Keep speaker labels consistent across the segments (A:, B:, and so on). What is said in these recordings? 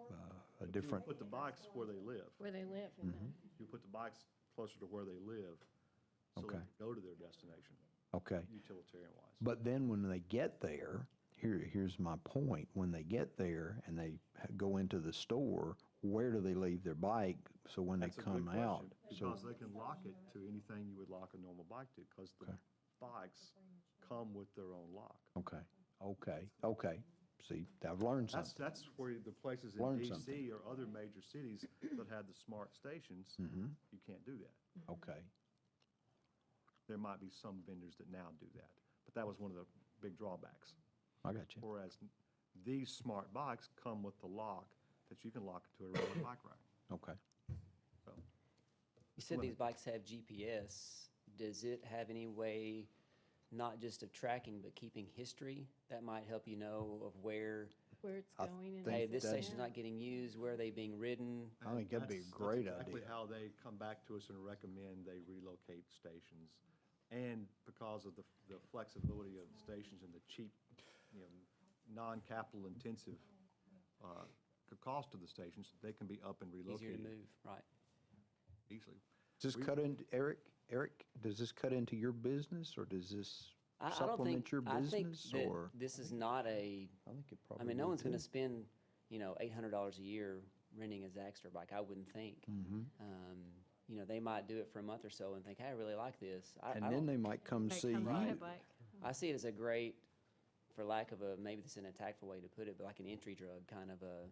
A: uh, a different, mm-hmm,
B: Put the box where they live.
C: where they live. in the-
B: You put the box closer to where they live, so they
A: Okay.
B: can go to their destination,
A: okay.
B: utilitarian-wise.
A: But then when they get there, here, here's my point. When they get there and they ha- go into the store, where do they leave their bike? So when
B: That's a
A: they
B: good
A: come out,
B: question, Because they can lock it to anything you would lock a normal bike to, because the
A: Okay.
B: bikes come with their own lock.
A: okay, okay, okay. See, I've learned
B: That's,
A: something.
B: that's where the places in
A: Learned
B: DC
A: something.
B: or other major cities that have the smart stations,
A: Mm-hmm.
B: you can't do that.
A: Okay,
B: There might be some vendors that now do that, but that was one of the big drawbacks.
A: I got you.
B: Whereas these smart bikes come with the lock that you can lock to a regular bike rack.
A: Okay.
B: So
D: You said these
B: limit.
D: bikes have GPS. Does it have any way, not just of tracking, but keeping history? That might help you know of where,
C: Where it's
A: Mm-hmm. I
C: going and.
D: hey,
A: think
D: this
A: that-
D: station's not getting used, where are they being ridden?
A: I think that'd be a
B: That's- that's
A: great
B: Exactly
A: idea.
B: how they come back to us and recommend they relocate stations. And because of the, the flexibility of the stations and the cheap, you know, non-capital intensive, uh, c- cost of the stations, they can be up and
D: Easier to
B: relocated
D: move, right?
B: easily.
A: Does this cut into, Eric, Eric, does this cut into your business or does this
D: I, I don't
A: supplement
D: think,
A: your
D: I think
A: business
D: that
A: or?
D: this is not a,
A: I think it
D: I
A: probably
D: mean, no
A: would
D: one's
A: too.
D: gonna spend, you know, eight hundred dollars a year renting a Zaxter bike, I wouldn't think.
A: Mm-hmm.
D: Um, You know, they might do it for a month or so and think, hey, I really like this. I-
A: And
D: I
A: then
D: don't-
A: they might come
C: They
A: see
C: come on
A: you.
C: a bike.
D: I see it as a great, for lack of a, maybe this is a tactful way to put it, but like an entry drug kind of a,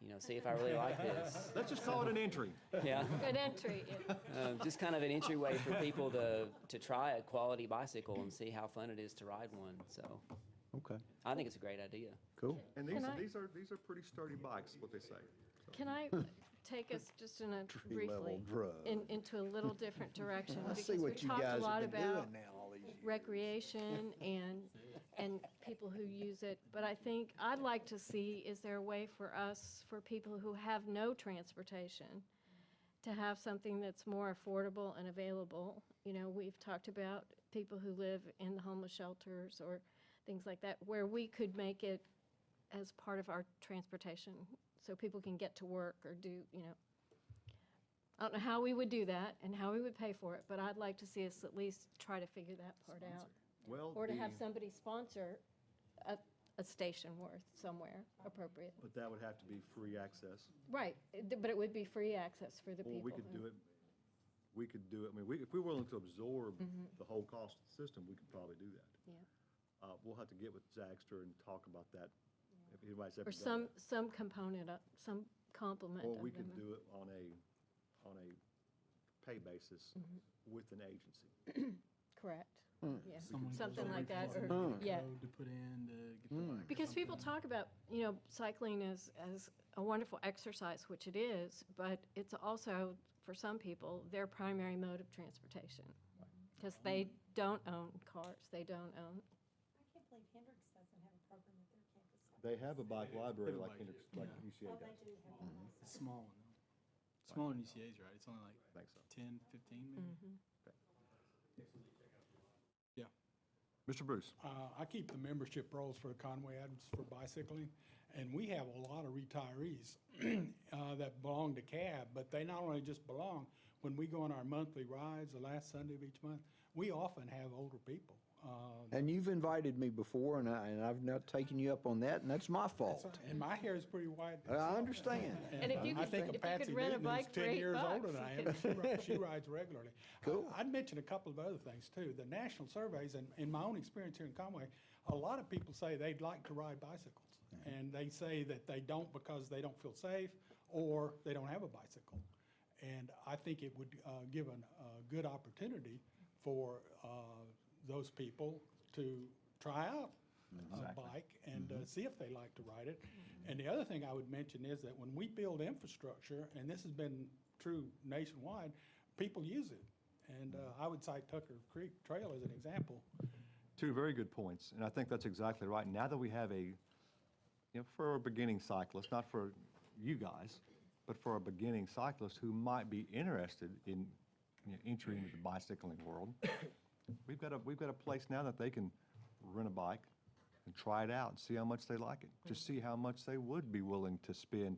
D: you know, see if I really like this.
B: Let's just call it an entry.
D: Yeah,
C: Good entry. It-
D: um, just kind of an entryway for people to, to try a quality bicycle and see how fun it is to ride one. So
A: Okay,
D: I think it's a great idea.
A: cool.
B: And these,
C: Can I-
B: these are, these are pretty sturdy bikes, what they say.
C: Can I take us just in a briefly,
A: Tree-level drug.
C: in- into a little different direction?
A: I see
C: because we
A: what you
C: talked a
A: guys
C: lot
A: have been
C: about
A: doing now all these years.
C: recreation and, and people who use it. But I think, I'd like to see, is there a way for us, for people who have no transportation, to have something that's more affordable and available? You know, we've talked about people who live in the homeless shelters or things like that, where we could make it as part of our transportation, so people can get to work or do, you know. I don't know how we would do that and how we would pay for it, but I'd like to see us at least try to figure that part out.
B: Well,
C: Or to have
B: the-
C: somebody sponsor a, a station worth somewhere appropriate.
B: But that would have to be free access.
C: Right, it- but it would be free access for the people.
B: Or we could do it, we could do it, I mean, we, if we're willing to absorb the whole cost of the system, we could probably do that.
C: Mm-hmm. Yeah.
B: Uh, we'll have to get with Zaxter and talk about that, if anybody's ever
C: Or
B: done
C: some,
B: that.
C: some component, of- some complement of
B: Or
C: them.
B: we can do it on a, on a pay basis
C: Mm-hmm.
B: with an agency.
C: Correct, yeah,
E: Someone goes
C: something
E: over
C: like
E: and
C: that,
E: finds
C: or,
E: a
C: yeah.
E: code To put in to get the bike.
C: Because people talk about, you know, cycling as, as a wonderful exercise, which it is, but it's also, for some people, their primary mode of transportation. Because they don't own cars, they don't own,
F: I can't believe Hendrix doesn't have a program at their campus.
B: They have a bike library
E: They have a
B: like
E: bike,
B: Hendrix,
E: yeah.
B: like
F: Oh,
B: UCA
F: they
B: does.
F: do have one.
E: It's small one though. Smaller than UCA's, right? It's only like
B: I think so.
E: 10, 15 maybe? Yeah.
B: Mr. Bruce?
C: Mm-hmm.
G: Uh, I keep the membership rolls for Conway Adams for bicycling, and we have a lot of retirees uh, that belong to CAB, but they not only just belong, when we go on our monthly rides, the last Sunday of each month, we often have older people. Uh,
A: And you've invited me before, and I, and I've not taken you up on that, and that's my fault.
G: And my hair is pretty white.
A: I understand.
C: And if you
G: I
C: could-
G: think
C: if
G: of
C: you could
G: Patsy
C: rent a
G: Newton,
C: bike
G: who's
C: for
G: ten
C: eight
G: years older
C: bucks,
G: than I
C: you
G: am, she rides, she rides regularly.
A: Cool.
G: I'd mention a couple of other things too. The national surveys, and in my own experience here in Conway, a lot of people say they'd like to ride bicycles.
A: Mm-hmm.
G: And they say that they don't because they don't feel safe, or they don't have a bicycle. And I think it would uh, give an- a good opportunity for uh, those people to try out a bike and uh, see if they like to ride it. And the other thing I would mention is that when we build infrastructure, and this has been true nationwide, people use it. And uh, I would cite Tucker Creek Trail as an example.
B: Two very good points, and I think that's exactly right. Now that we have a, you know, for a beginning cyclist, not for you guys, but for a beginning cyclist who might be interested in you know, entry into the bicycling world, we've got a, we've got a place now that they can rent a bike and try it out and see how much they like it. Just see how much they would be willing to spend